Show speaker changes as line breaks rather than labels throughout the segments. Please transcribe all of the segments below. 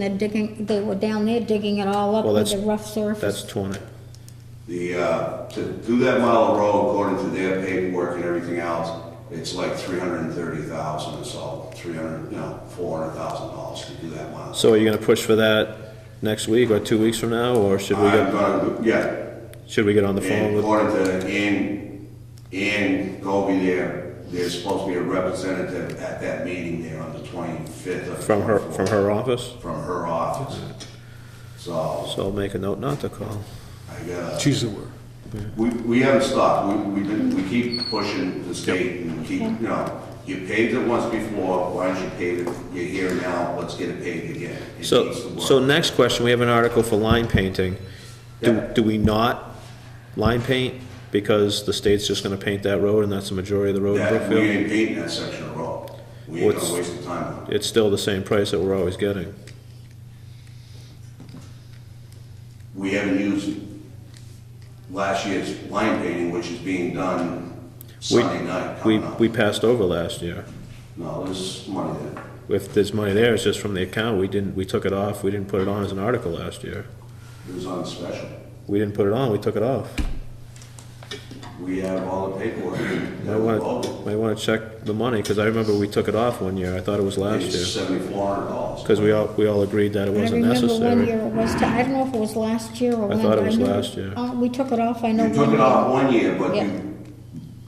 They're digging, they were down there digging it all up
Well,
with the
that's-
rough surface.
That's 20.
The, uh, to do that mile of road according to their paperwork and everything else, it's like three hundred and thirty thousand, it's all three hundred, no, four hundred thousand dollars to do that mile.
So are you gonna push for that next week or two weeks from now, or should we
I'm
get,
gonna, yeah,
should we get on the phone
and
with?
according to Ann, Ann Goby there, there's supposed to be a representative at that meeting there on the twenty-fifth of.
From her, from her office?
From her office. So,
So I'll make a note not to call.
I gotta.
She's aware.
We, we haven't stopped, we, we been, we keep pushing the state and keep, you know, you paved it once before, why don't you pave it, you're here now, let's get it paved again. It
So,
needs to work.
so next question, we have an article for line painting. Do,
Yeah.
do we not line paint because the state's just gonna paint that road and that's the majority of the road in
That, we
Brookfield?
ain't painting that section of road, we ain't
What's-
gonna waste the time on it.
It's still the same price that we're always getting.
We haven't used last year's line painting, which is being done
We,
Sunday night
we,
coming up.
we passed over last year.
No, there's money there.
If there's money there, it's just from the account. We didn't, we took it off. We didn't put it on as an article last year.
It was on special.
We didn't put it on, we took it off.
We have all the paperwork.
Might want to, might want to check the money, because I remember we took it off one year, I thought it was last
It's
year.
seventy-four hundred dollars.
Because we all, we all agreed that it
I
wasn't
remember one year
necessary.
it was, I don't know if it was last year or when.
thought it
but
was
know-
last year.
uh, We took it off, I know.
You took
one
it
year.
off one year, but
Yeah.
you,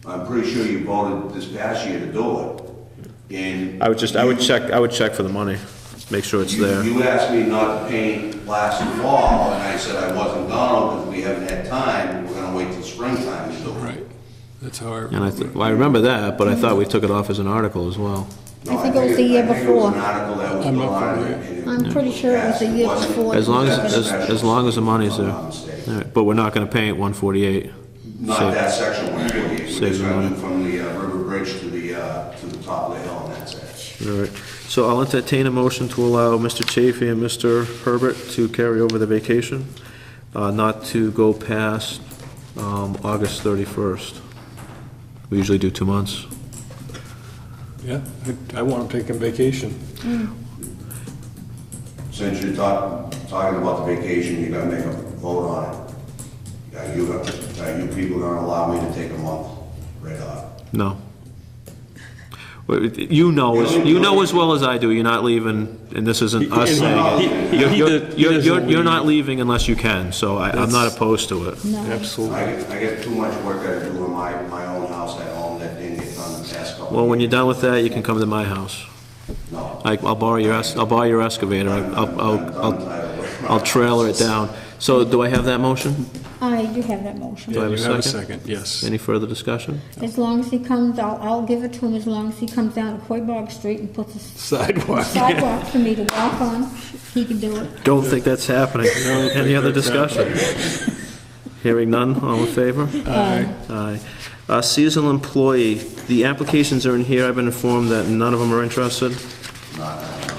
I'm pretty sure you voted this past year to do it. And.
I would just, I would check, I would check for the money, make sure it's
You,
there.
you asked me not to paint last fall, and I said I wasn't gonna, because we haven't had time, we're gonna wait till springtime to do it.
Right. That's how I
And I,
remember.
th- well, I remember that, but I thought we took it off as an article as well.
No,
I think it was the year
I think it was
before.
an article that was
I'm not
put on
familiar.
it, and it
I'm pretty sure it was the year
wasn't-
before.
As long as,
That's
as, as long as the money's there.
If I'm not mistaken.
All right, But we're not gonna paint one forty-eight.
Not that section one forty-eight, we're
Save
just
the
gonna do
money.
from the uh, river bridge to the, uh, to the top of the hill, and that's it.
So I'll entertain a motion to allow Mr. Chafee and Mr. Herbert to carry over the vacation, uh, not to go past, um, August thirty-first. We usually do two months.
Yeah, I- I want to take a vacation.
Since you're talk, talking about the vacation, you gotta make a vote on it. Are you, are you people gonna allow me to take a month right off?
No. Well, You know, as- you know as well as I do, you're not leaving, and this isn't us
He- he-
saying,
he- he-
you're,
he
you're-
does- he
you're,
doesn't
you're- you're not
leave.
leaving unless you can, so I, I'm not opposed to it.
No,
Absolutely.
I get, I get too much work that I do in my, my own house at home that didn't get done the past couple.
Well, when you're done with that, you can come to my house.
No.
I, I'll borrow your, es- I'll borrow your excavator,
I'm-
I'll,
I'm
I'll,
done
I'll,
tired of-
I'll trailer it down. So do I have that motion?
I do have that motion.
Do I have a
You have a
second?
second, yes.
Any further discussion?
As long as he comes, I'll, I'll give it to him as long as he comes down to Quabog Street and puts a
Sidewalk.
sidewalk for me to walk on. He can do it.
Don't think that's happening.
don't think
Any other
that's
discussion? Hearing none, all in favor?
Aye.
Aye. Uh, Seasonal employee, the applications are in here, I've been informed that none of them are interested.
Not, not, not.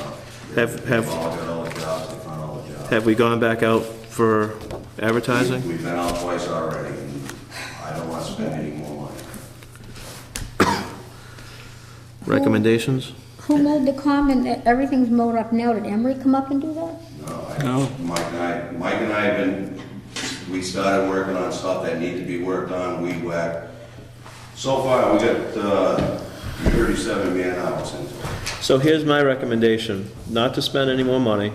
Have,
They've
have,
all got all the jobs, they found all the jobs.
have we gone back out for advertising?
We've been out twice already, and I don't wanna spend any more money.
Recommendations?
Who mowed the common? Everything's mowed up now. Did Emery come up and do that?
No,
No.
I, Mike and I, Mike and I have been, we started working on stuff that need to be worked on, weed whack. So far, we got, uh, thirty-seven man hours into it.
So here's my recommendation, not to spend any more money.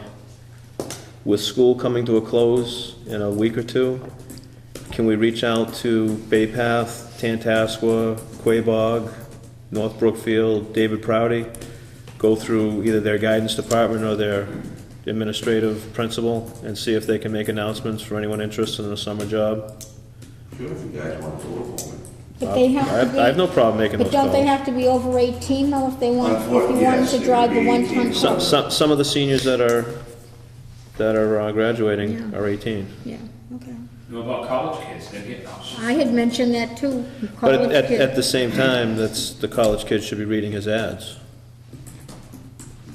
With school coming to a close in a week or two, can we reach out to Bay Path, Tantascwa, Quabog, North Brookfield, David Proudy? Go through either their guidance department or their administrative principal and see if they can make announcements for anyone interested in a summer job?
Sure, if you guys want to do it for me.
But they
Uh, I
have to
have,
be.
I have no problem making
But
those
don't they
calls.
have to be over 18 though if they want, if
Unfortunately,
you wanted
yes, it
to
would
drive the
be
one
18.
ton
Some,
car?
some, some of the seniors that are, that are uh, graduating
Yeah.
are eighteen.
Yeah, okay.
Know about college kids, they get those.
I had mentioned that too.
But
college
at,
kid.
at the same time, that's, the college kids should be reading his ads.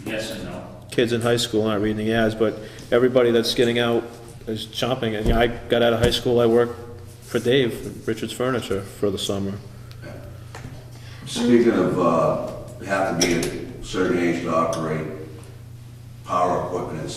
Yes and no.
Kids in high school aren't reading the ads, but everybody that's getting out is chomping. And, you know, I got out of high school, I worked for Dave, Richards Furniture, for the summer.
Speaking of, uh, have to be a certain age to operate power equipment and